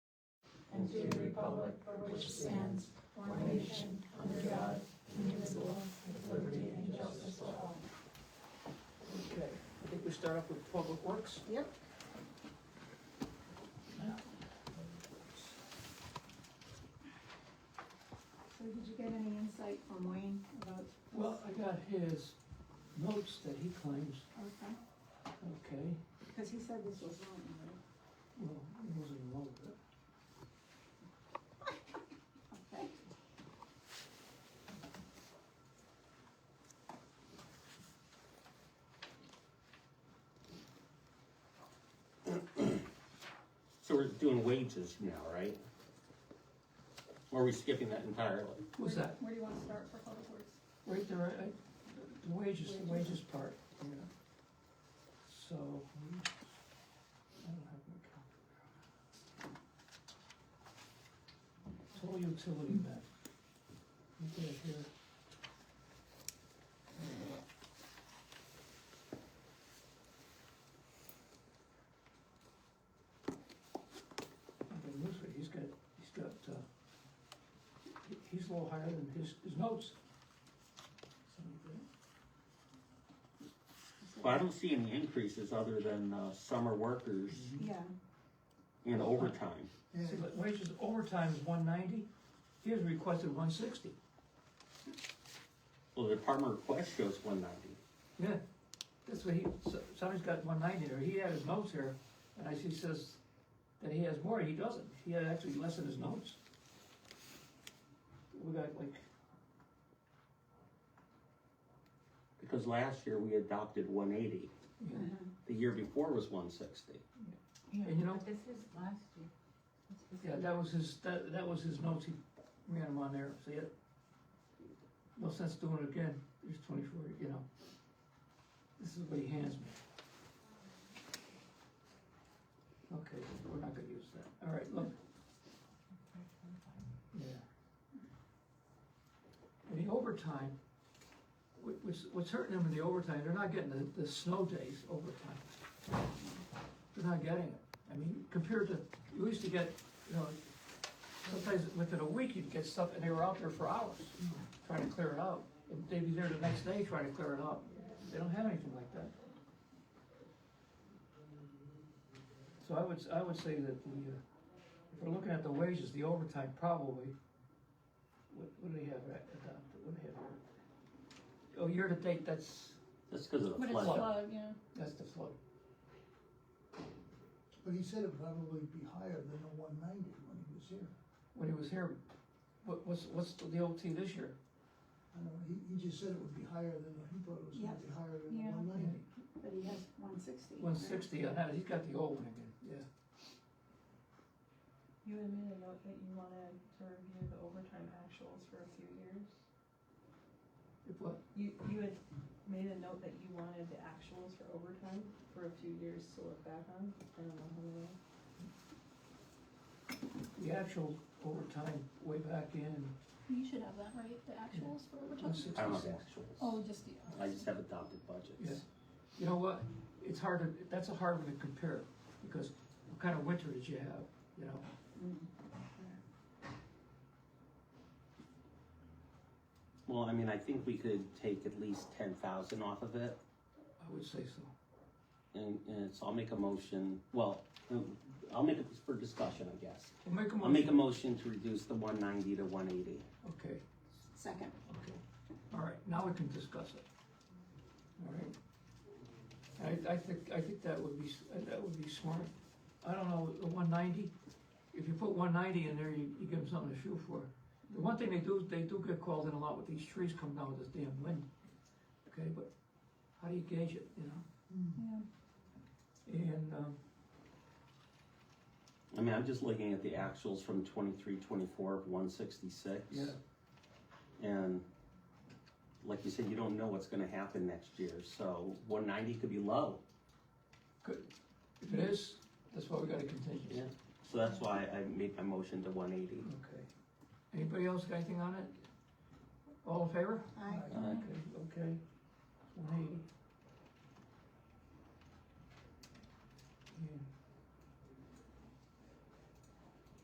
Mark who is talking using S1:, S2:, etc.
S1: and to the republic for which it stands, one nation, under God, indivisible, with liberty and justice for all.
S2: Okay, I think we start off with Public Works.
S3: Yep. So did you get any insight from Wayne about?
S2: Well, I got his notes that he claims,
S3: Okay,
S2: okay,
S3: because he said this was wrong, right?
S2: well, it wasn't wrong, but
S3: Okay.
S4: So we're doing wages now, right? Or are we skipping that entirely?
S2: what's
S3: Where-
S2: that?
S3: Where do you want to start for public works?
S2: Right there, I, I- the wages, the wages part, yeah. So, I don't have my calculator. Total utility net. You get it here. Okay, this way, he's got, he's got, uh, he- he's a little higher than his, his notes.
S3: You said-
S4: Well, I don't see any increases other than uh, summer workers
S3: Yeah, uh-huh.
S4: and overtime.
S2: See, but wages overtime is one ninety, he has requested one sixty.
S4: Well, the department request shows one ninety.
S2: Yeah, that's what he, so- somebody's got one ninety there, he had his notes here, and I see says that he has more, he doesn't, he had actually less in his notes. We got like,
S4: Because last year we adopted one eighty.
S2: yeah,
S4: The year before was one sixty.
S2: and you know,
S5: But this is last year. This is-
S2: yeah, that was his, that, that was his notes, he ran them on there, so yeah. No sense doing it again, there's twenty-four, you know. This is what he hands me. Okay, we're not gonna use that, all right, look, Yeah. And the overtime, wha- what's, what's hurting them in the overtime, they're not getting the, the snow days overtime. They're not getting it. I mean, compared to, you used to get, you know, sometimes within a week you'd get stuff and they were out there for hours trying to clear it out. And they'd be there the next day trying to clear it out. They don't have anything like that. So I would, s- I would say that the, uh, if we're looking at the wages, the overtime probably, what, what do they have at, adopted, what do they have here? Oh, year to date, that's,
S4: That's because of the
S5: But it's
S4: flood.
S5: low, yeah.
S2: that's the float.
S6: But he said it'd probably be higher than the one ninety when he was here.
S2: When he was here, what, what's, what's the OT this year?
S6: I don't know, he, he just said it would be higher than, he thought it was gonna be higher than the
S3: Yeah.
S6: one ninety.
S3: but he has one sixty.
S2: One sixty, I had, he's got the old one again, yeah.
S7: You had made a note that you wanted to review the overtime actuals for a few years.
S2: If what,
S7: You, you had made a note that you wanted the actuals for overtime for a few years to look back on. I don't know how many.
S2: the actual overtime way back in
S5: You should have that, right, the actuals for
S2: one
S5: overtime?
S4: I don't have
S2: sixty-six.
S4: actuals.
S5: Oh, just the.
S3: uh,
S4: I just have adopted budgets.
S2: Yeah. You know what, it's hard to, that's a hard one to compare, because what kind of winter did you have, you know?
S4: Well, I mean, I think we could take at least ten thousand off of it,
S2: I would say so.
S4: and, and so I'll make a motion, well, uh, I'll make it for discussion, I guess.
S2: We'll make a
S4: I'll make a
S2: motion.
S4: motion to reduce the one ninety to one eighty.
S2: Okay,
S3: Second,
S2: okay, all right, now we can discuss it. All right? I, I think, I think that would be, s- that would be smart. I don't know, the one ninety, if you put one ninety in there, you, you give them something to shoot for. The one thing they do, they do get called in a lot with these trees coming down with this damn wind, okay, but how do you gauge it, you know?
S5: Yeah.
S2: And, um,
S4: I mean, I'm just looking at the actuals from twenty-three, twenty-four of one sixty-six.
S2: yeah,
S4: And like you said, you don't know what's gonna happen next year, so one ninety could be low.
S2: good. If it is, that's why we got a contingency.
S4: Yeah. So that's why I made my motion to one eighty.
S2: Okay. Anybody else got anything on it? All in favor?
S3: aye.
S4: Uh,
S2: Okay, okay. One eighty.